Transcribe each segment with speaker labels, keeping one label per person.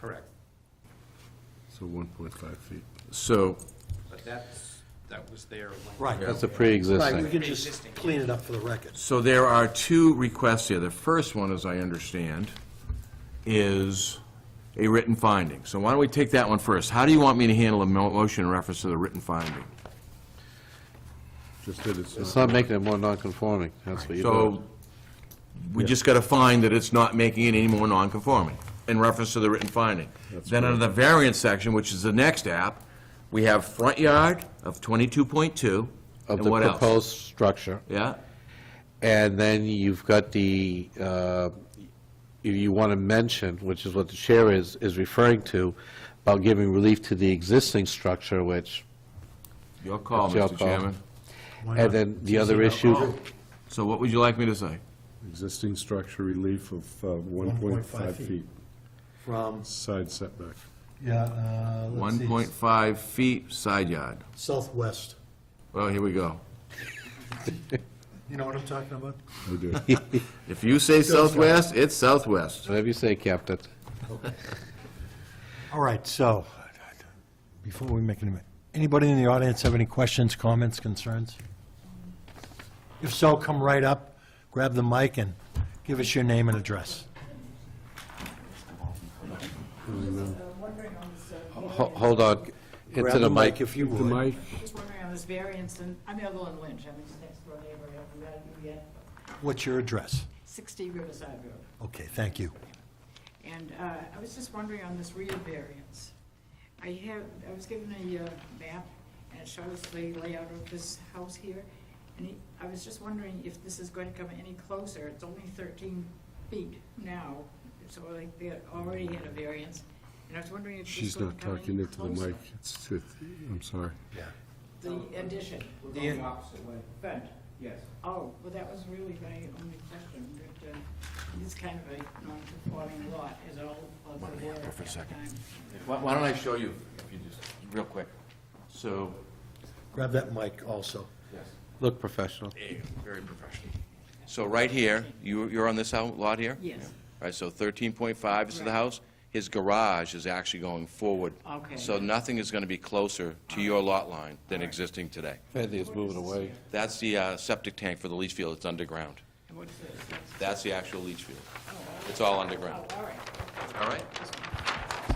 Speaker 1: Correct.
Speaker 2: So 1.5 feet. So,
Speaker 1: But that's, that was their language.
Speaker 3: Right.
Speaker 4: That's a
Speaker 3: Right, we
Speaker 4: pre-existing.
Speaker 3: can just clean it up for the records.
Speaker 2: so there are two requests here. The first one, as I understand, is a written finding. So why don't we take that one first? How do you want me to handle a mo- motion in reference to the written finding?
Speaker 5: Just that it's
Speaker 4: It's
Speaker 5: not,
Speaker 4: not making it more non-conforming, that's what you're
Speaker 2: So,
Speaker 4: doing.
Speaker 2: we just gotta find that it's not making it any more non-conforming in reference to the written finding. Then under the variance section, which is the next app, we have front yard of 22.2,
Speaker 4: Of
Speaker 2: and
Speaker 4: the
Speaker 2: what else?
Speaker 4: proposed structure.
Speaker 2: Yeah,
Speaker 4: And then you've got the, uh, you- you want to mention, which is what the chair is, is referring to, about giving relief to the existing structure, which,
Speaker 2: your call,
Speaker 4: It's your
Speaker 2: Mr.
Speaker 4: call.
Speaker 2: Chairman.
Speaker 4: and then the other issue,
Speaker 2: So what would you like me to say?
Speaker 5: existing structure relief of uh, 1.5 feet,
Speaker 3: From,
Speaker 5: side setback.
Speaker 6: Yeah, uh, let's see.
Speaker 2: 1.5 feet side yard.
Speaker 3: southwest.
Speaker 2: Well, here we go.
Speaker 6: You know what I'm talking about?
Speaker 5: We do.
Speaker 2: If you say southwest, it's southwest.
Speaker 4: whatever you say, Captain.
Speaker 6: All right, so, before we make any, anybody in the audience have any questions, comments, concerns? If so, come right up, grab the mic, and give us your name and address.
Speaker 7: I'm wondering on this, uh,
Speaker 5: Oh.
Speaker 4: Ho- Hold on, into
Speaker 3: Grab
Speaker 4: the
Speaker 3: the
Speaker 4: mic.
Speaker 3: mic if you
Speaker 5: The
Speaker 3: would.
Speaker 5: mic,
Speaker 7: just wondering on this variance, and I'm Evelyn Lynch, I'm his next door neighbor, I haven't met you yet,
Speaker 6: What's your address?
Speaker 7: 60 Riverside Road.
Speaker 6: Okay, thank you.
Speaker 7: And uh, I was just wondering on this rear variance. I have, I was given a uh, map, and it shows the layout of this house here, and he- I was just wondering if this is going to come any closer, it's only 13 feet now, so like they already had a variance, and I was wondering if this is
Speaker 5: she's
Speaker 7: going
Speaker 5: not
Speaker 7: to come
Speaker 5: talking
Speaker 7: any
Speaker 5: into the
Speaker 7: closer.
Speaker 5: mic. It's, it- I'm sorry.
Speaker 7: The addition.
Speaker 8: We're going the opposite way,
Speaker 7: Front.
Speaker 8: yes.
Speaker 7: Oh, well, that was really my only question, but uh, it's kind of a non-conforming lot, is all of the work at
Speaker 2: for a
Speaker 7: the
Speaker 2: second.
Speaker 7: time.
Speaker 2: Why why don't I show you, if you just, real quick? So,
Speaker 3: Grab that mic also.
Speaker 4: Look professional.
Speaker 2: eh, very professional. So right here, you- you're on this out- lot here?
Speaker 7: Yes,
Speaker 2: All right, so 13.5 is to the
Speaker 7: Right.
Speaker 2: house. His garage is actually going forward.
Speaker 7: Okay.
Speaker 2: So nothing is going to be closer to your lot line than existing today.
Speaker 4: Fancy is moving away.
Speaker 2: That's the uh, septic tank for the leach field, it's underground.
Speaker 7: and what's this?
Speaker 2: That's the actual leach field. It's all underground,
Speaker 7: Oh, all right.
Speaker 2: all right?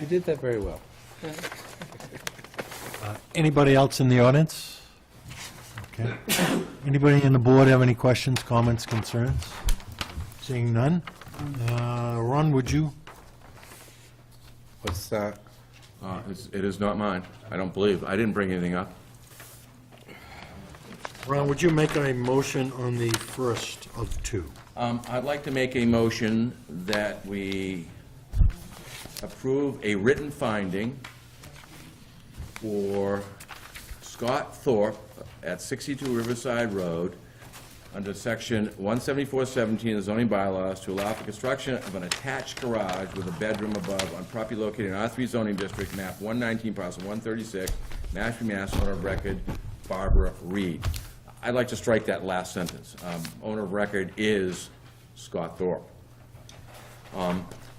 Speaker 4: You did that very well.
Speaker 6: Anybody else in the audience? Okay. Anybody in the board have any questions, comments, concerns? Seeing none? Uh, Ron, would you?
Speaker 4: What's that?
Speaker 2: Uh, It is not mine, I don't believe, I didn't bring anything up.
Speaker 3: Ron, would you make a motion on the first of two?
Speaker 2: Um, I'd like to make a motion that we approve a written finding for Scott Thorpe at 62 Riverside Road, under section 17417 of the zoning bylaws, to allow for construction of an attached garage with a bedroom above on property located in R3 zoning district, map 119, parcel 136, Mashpee, Mass., owner of record Barbara Reed. I'd like to strike that last sentence. Um, Owner of record is Scott Thorpe.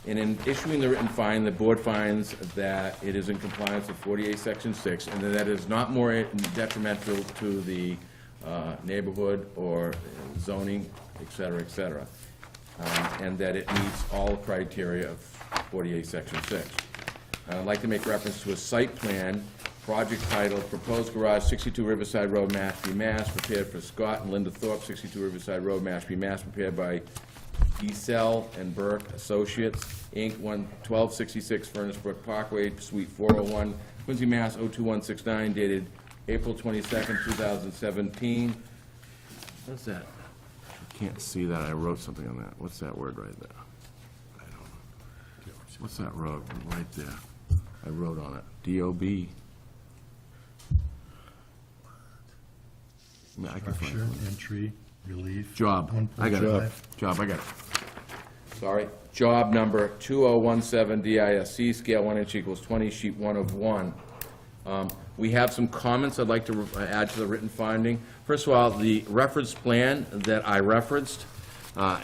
Speaker 2: And in issuing the written fine, the board finds that it is in compliance with 48, Section 6, and that that is not more detrimental to the uh, neighborhood or zoning, et cetera, et cetera, um, and that it meets all criteria of 48, Section 6. And I'd like to make reference to a site plan, project title, Proposed Garage, 62 Riverside Road, Mashpee, Mass., prepared for Scott and Linda Thorpe, 62 Riverside Road, Mashpee, Mass., prepared by Ecell and Burke Associates, Inc., 1266 Furnace Brook Parkway, Suite 401, Quincy, Mass. 02169, dated April 22nd, 2017. What's that? I can't see that. I wrote something on that. What's that word right there? I don't know. What's that road right there? I wrote on it. DOB. No, I can find it.
Speaker 6: Sure, entry, relief.
Speaker 2: Job, I got it.
Speaker 6: 1.5.
Speaker 2: Job, I got it. Sorry. Job number 2017 DISC, scale 1 inch equals 20, sheet 1 of 1. Um, We have some comments I'd like to re- add to the written finding. First of all, the reference plan that I referenced Uh,